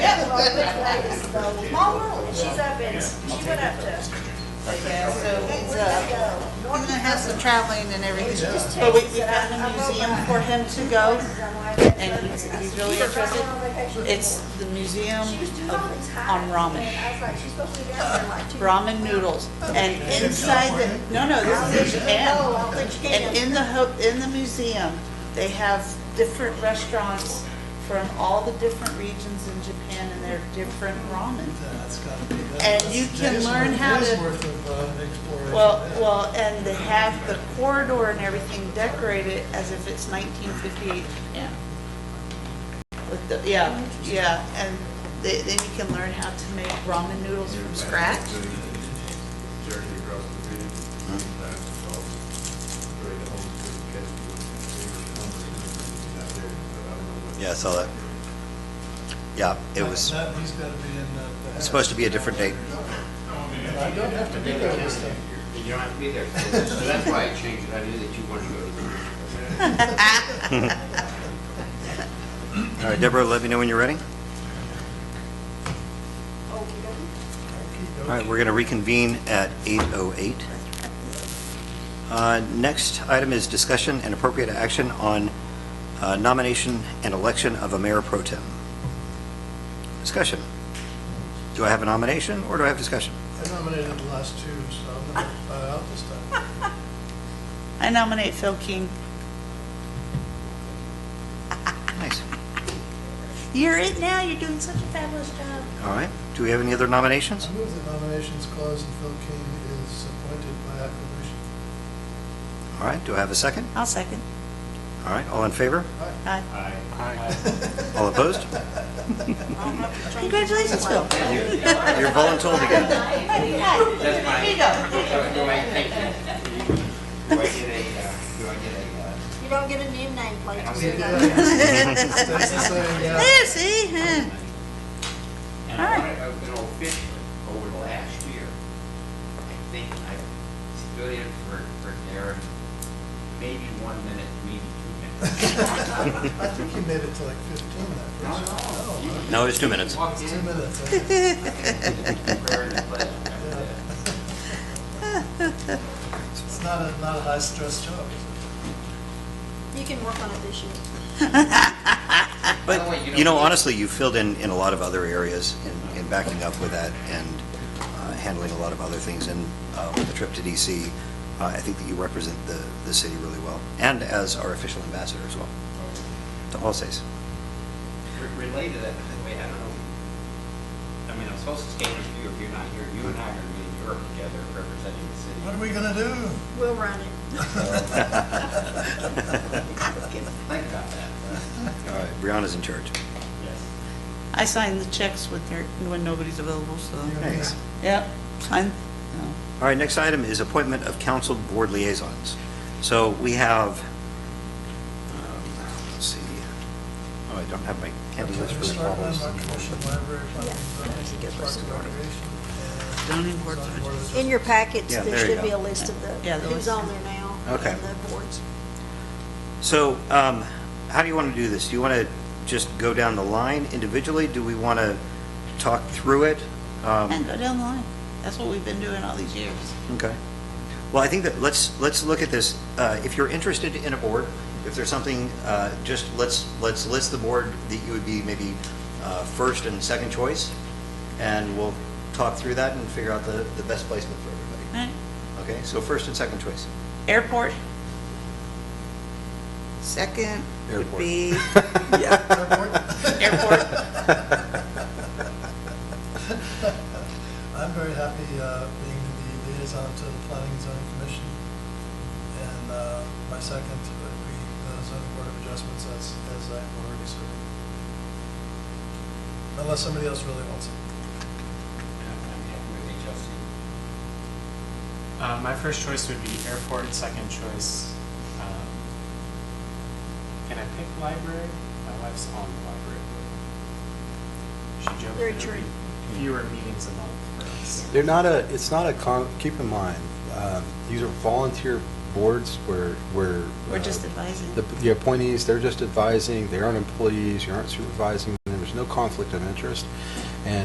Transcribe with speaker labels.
Speaker 1: She's up and, she went up to.
Speaker 2: Yeah, so it's, uh, in the house of traveling and everything. But we, we found a museum for him to go, and he's, he's really interested. It's the museum of- on ramen,
Speaker 1: I was like, she's supposed to be down there like two.
Speaker 2: ramen noodles, and inside the, no, no, this is in Japan. And in the, ho- in the museum, they have different restaurants from all the different regions in Japan, and they're different ramen.
Speaker 3: That's gotta be. that-
Speaker 2: And
Speaker 3: that's-
Speaker 2: you
Speaker 3: that
Speaker 2: can
Speaker 3: is
Speaker 2: learn
Speaker 3: worth-
Speaker 2: how
Speaker 3: that is
Speaker 2: to-
Speaker 3: worth of, uh, exploration.
Speaker 2: Well,
Speaker 3: Yeah.
Speaker 2: well, and they have the corridor and everything decorated as if it's 1958 Japan. With the, yeah, yeah, and they- then you can learn how to make ramen noodles from scratch.
Speaker 4: Jerry across the street. That's all. Right, the home cooked catch. Out there, but I don't know what-
Speaker 5: Yeah, I saw that. Yeah, it
Speaker 3: That-
Speaker 5: was
Speaker 3: that- he's gotta be in uh, the- the-
Speaker 5: it's supposed to be a different date.
Speaker 3: I don't have to be there this time.
Speaker 6: You don't have to be there. So that's why I changed it. I knew that you wanted to go to the meeting.
Speaker 5: All right, Deborah, let me know when you're ready. All right, we're going to reconvene at 8:08. Uh, Next item is discussion and appropriate action on uh, nomination and election of a mayor pro tem. Discussion. Do I have a nomination or do I have discussion?
Speaker 3: I nominated the last two, so I'm gonna buy out this time.
Speaker 2: I nominate Phil King.
Speaker 5: Nice.
Speaker 2: You're it now, you're doing such a fabulous job.
Speaker 5: All right. Do we have any other nominations?
Speaker 3: I move the nominations clause and Phil King is appointed by acclamation.
Speaker 5: All right, do I have a second?
Speaker 2: I'll second.
Speaker 5: All right, all in favor?
Speaker 2: Aye.
Speaker 5: All opposed?
Speaker 2: Congratulations, Phil.
Speaker 5: You're voluntold again.
Speaker 6: That's fine.
Speaker 2: Here you go.
Speaker 6: So do I, thank you. Do I get a, uh, do I get a, uh,
Speaker 1: You don't get a new nameplate.
Speaker 6: I'll
Speaker 1: plate.
Speaker 6: see you
Speaker 3: That's the same, yeah.
Speaker 2: Yeah, see, huh.
Speaker 6: And I want to open officially over the last year. I think I stood in for, for Darren, maybe one minute, maybe two minutes.
Speaker 3: I think you made it to like 15 that
Speaker 6: No,
Speaker 3: first. No,
Speaker 6: no, you
Speaker 5: No, it's two minutes.
Speaker 6: walked
Speaker 3: Two
Speaker 6: in,
Speaker 3: minutes. I-
Speaker 6: prayer and pledge, that was it.
Speaker 3: It's not a, not a high-stress job. is it?
Speaker 1: You can work on it this year.
Speaker 5: But, you know, honestly, you filled in, in a lot of other areas in, in backing up with that and uh, handling a lot of other things. And uh, with the trip to DC, uh, I think that you represent the, the city really well and as our official ambassador as well to all states.
Speaker 6: Re- Related to that, by the way, I don't know, I mean, I'm supposed to stand with you if you're not here, you and I are gonna be in Europe together representing the city.
Speaker 3: What are we gonna do?
Speaker 1: We'll run it.
Speaker 6: Think about that.
Speaker 5: All right, Brianna's in charge.
Speaker 6: Yes.
Speaker 2: I sign the checks when there, when nobody's available, so,
Speaker 5: Thanks.
Speaker 2: yep, sign, no.
Speaker 5: All right, next item is appointment of council board liaisons. So we have, um, let's see, oh, I don't have my candy list for the
Speaker 3: Start with
Speaker 5: follow-ups.
Speaker 3: my commission, library, planning, zoning, parks and recreation, and
Speaker 2: Zoning board of
Speaker 3: zoning board of
Speaker 1: In your packets,
Speaker 5: Yeah,
Speaker 1: there
Speaker 5: there you
Speaker 1: should be
Speaker 5: go.
Speaker 1: a list of the,
Speaker 2: Yeah, the
Speaker 1: who's
Speaker 2: list.
Speaker 1: on there now.
Speaker 5: Okay.
Speaker 1: and The boards.
Speaker 5: So, um, how do you want to do this? Do you want to just go down the line individually? Do we want to talk through it? Um,
Speaker 2: And go down the line. That's what we've been doing all these years.
Speaker 5: Okay. Well, I think that, let's, let's look at this. Uh, If you're interested in a board, if there's something, uh, just let's, let's list the board that you would be maybe uh, first and second choice, and we'll talk through that and figure out the, the best placement for everybody.
Speaker 2: Right.
Speaker 5: Okay, so first and second choice.
Speaker 2: Airport. Second would
Speaker 5: Airport.
Speaker 2: be
Speaker 3: Airport. I'm very happy uh, being the liaison to the Planning and Zoning Commission, and uh, my second would be the Zoning Board of Adjustments as, as I'm already serving. Unless somebody else really wants it.
Speaker 6: I'm happy with HLC.
Speaker 7: Uh, my first choice would be airport, second choice, um, can I pick library? My wife's on the library. board. She joked
Speaker 1: Very
Speaker 7: that it'd be fewer meetings a month for us.
Speaker 8: They're not a, it's not a, con- keep in mind, um, these are volunteer boards where, where.
Speaker 2: We're
Speaker 8: uh,
Speaker 2: just advising.
Speaker 8: The the appointees, they're just advising, they aren't employees, you aren't supervising, them. there's there's no conflict of interest, and